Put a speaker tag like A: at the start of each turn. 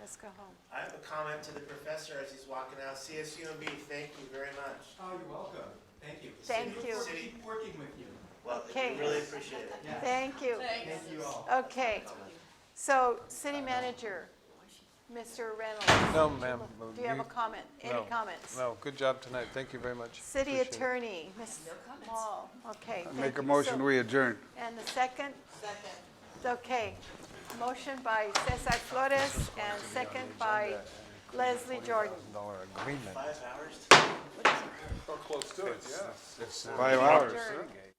A: Let's go home.
B: I have a comment to the professor as he's walking out. CSUMB, thank you very much.
C: Oh, you're welcome. Thank you.
A: Thank
B: City-
A: you.
B: City,
C: Keep working with you.
B: well,
A: Okay.
B: we really appreciate it.
C: Yeah.
A: Thank you.
C: Thank you all.
A: Okay, so city manager, Mr. Reynolds.
D: No, ma'am.
A: Do you have a comment? Any
D: No.
A: comments?
D: No, good job tonight. Thank you very much.
A: City
D: Appreciate it.
A: attorney, Ms. Mall. Okay. thank
E: Make a
A: you.
E: motion,
A: So-
E: we adjourn.
A: And the second? Second. Okay. Motion by Cesar Flores and second by Leslie Jordan.
D: Dollar agreement.
B: Five hours?
D: It's- it's-
E: Five hours.
A: Adjourn.
D: Okay.